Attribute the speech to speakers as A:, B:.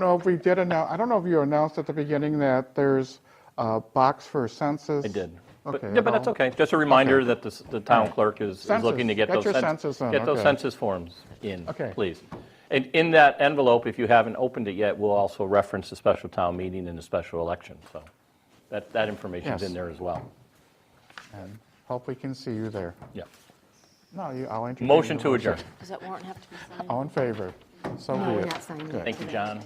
A: No, if we did announce, I don't know if you announced at the beginning that there's a box for census.
B: I did. But,
A: Okay.
B: yeah, but that's
A: well,
B: okay. Just a reminder that the, s- the town clerk is, is looking
A: Census.
B: to get
A: Get
B: those.
A: your
B: cens-
A: census in,
B: Get those
A: okay.
B: census forms in,
A: Okay.
B: please. And in that envelope, if you haven't opened it yet, we'll also reference the special town meeting and the special election, so that, that information's
A: Yes.
B: in there as well.
A: and Hope we can see you there.
B: Yeah.
A: No, you, I'll entertain.
B: Motion
A: the
B: to adjourn.
C: Does that warrant have to be signed?
A: All in favor? So
C: No,
A: be
C: we're
A: it.
C: not signing it.
A: Good.
B: Thank you, John.